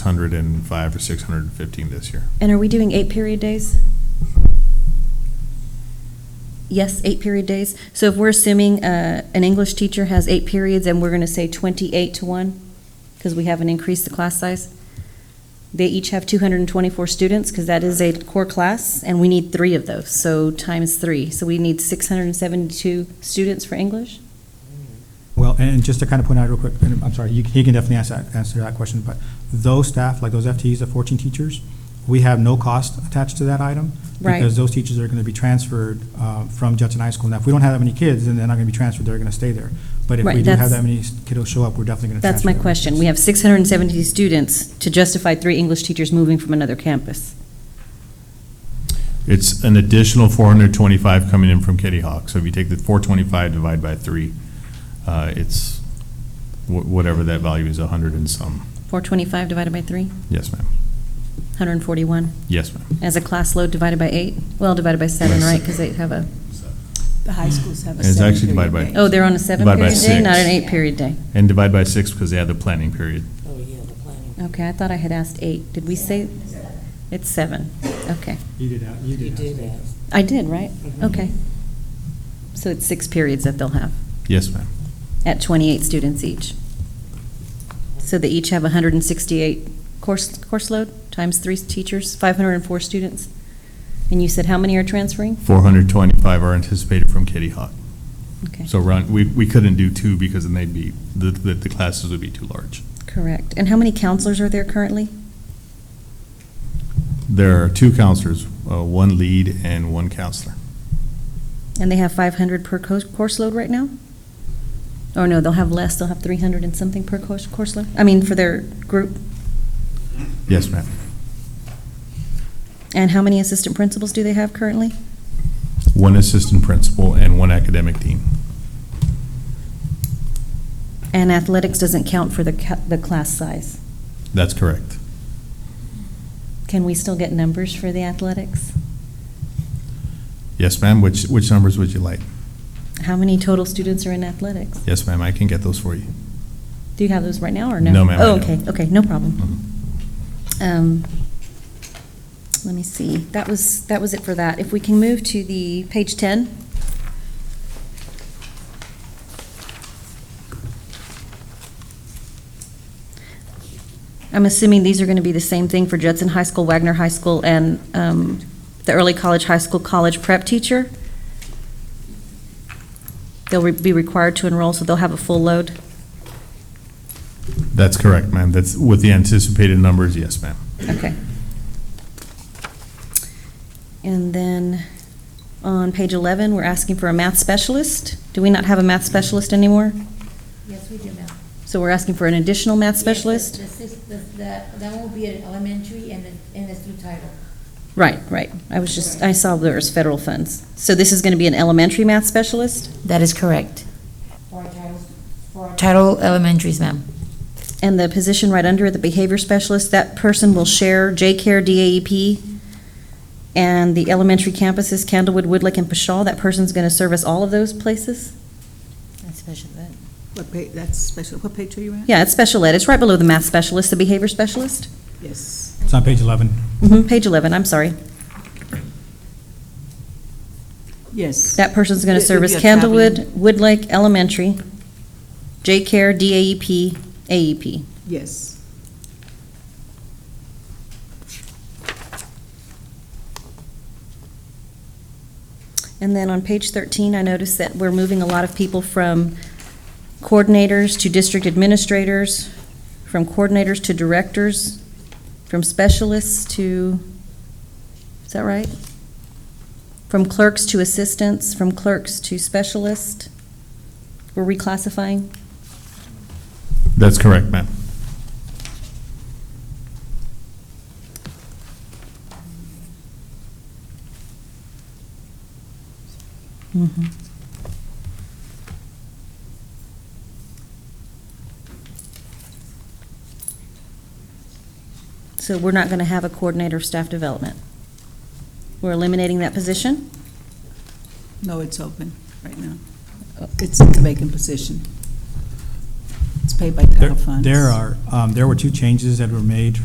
hundred and five or six hundred and fifteen this year. And are we doing eight period days? Yes, eight period days. So if we're assuming uh, an English teacher has eight periods and we're going to say 28 to 1, because we haven't increased the class size, they each have 224 students, because that is a core class, and we need three of those, so times three. So we need 672 students for English? Well, and just to kind of point out real quick, and I'm sorry, you- he can definitely answer that, answer that question, but those staff, like those FTEs, the fourteen teachers, we have no cost attached to that item. Right. Because those teachers are gonna be transferred, uh, from Judson High School. Now, if we don't have that many kids, then they're not gonna be transferred, they're gonna stay there. But if we Right, do have that's- that many kiddos show up, we're definitely gonna transfer. That's my them. question. We have 670 students to justify three English teachers moving from another campus. It's an additional four hundred twenty-five coming in from Kitty Hawk. So if you take the four twenty-five divided by three, uh, it's wh- whatever that value is, a hundred and some. 425 divided by three, Yes, ma'am. 141. Yes, ma'am. As a class load divided by eight? Well, divided by seven, By right, se- because they have a, The high schools have a And it's seven actually divided by- period day. oh, they're on a seven Divided by period day, not an six. eight period day? And divide by six because they had the planning period. Oh, yeah, the planning. Okay, I thought I had asked eight. Did we say? It's seven, okay. You did, a- you You did. did ask me. ask. I did, right? Mm-hmm. Mhm. Okay. So it's six periods that they'll have, Yes, ma'am. at 28 students each. So they each have 168 course, course load, times three teachers, 504 students. And you said how many are transferring? Four hundred twenty-five are anticipated from Kitty Hawk. Okay. So run, we, we couldn't do two because then they'd be, the, the the classes would be too large. Correct. And how many counselors are there currently? There are two counselors, uh, one lead and one counselor. And they have 500 per co- course load right now? Or no, they'll have less, they'll have 300 and something per course, course load? I mean, for their group? Yes, ma'am. And how many assistant principals do they have currently? One assistant principal and one academic dean. And athletics doesn't count for the, ca- the class size. That's correct. Can we still get numbers for the athletics? Yes, ma'am. Which, which numbers would you like? How many total students are in athletics? Yes, ma'am, I can get those for you. Do you have those right now, or no? No, ma'am, I Oh, okay, don't. okay, no problem. Mhm. Um, Let me see, that was, that was it for that. If we can move to the, page 10. I'm assuming these are going to be the same thing for Judson High School, Wagner High School, and um, the early college, high school, college prep teacher? They'll re- be required to enroll, so they'll have a full load? That's correct, ma'am. That's with the anticipated numbers, yes, ma'am. Okay. And then on page 11, we're asking for a math specialist. Do we not have a math specialist anymore? Yes, we do, ma'am. So we're asking for an additional math Yes, specialist? the- the six- the- the- That will be an elementary and a- and a through title. Right, right. I was just, I saw there was federal funds. So this is going to be an elementary math specialist? That is correct. For our titles? For our title elementaries, ma'am. And the position right under it, the behavior specialist, that person will share J-CARE, DAEP, and the elementary campuses, Candlewood, Woodlake, and Pashaw. That person's going to service all of those places? Special ed. What page, that's special, what page are you at? Yeah, it's special ed. It's right below the math specialist, the behavior specialist. Yes. It's on page eleven. Mhm, Page 11, I'm sorry. Yes. That person's going It to would service be a traveling- Candlewood, Woodlake Elementary, J-CARE, E DAEP, AEP. Yes. And then on page 13, I noticed that we're moving a lot of people from coordinators to district administrators, from coordinators to directors, from specialists to, is that right? From clerks to assistants, from clerks to specialists. We're reclassifying? That's correct, ma'am. So we're not going to have a coordinator of staff development? We're eliminating that position? No, it's open right now. It's a vacant position. It's paid by There title funds. there are, um, there were two changes that were made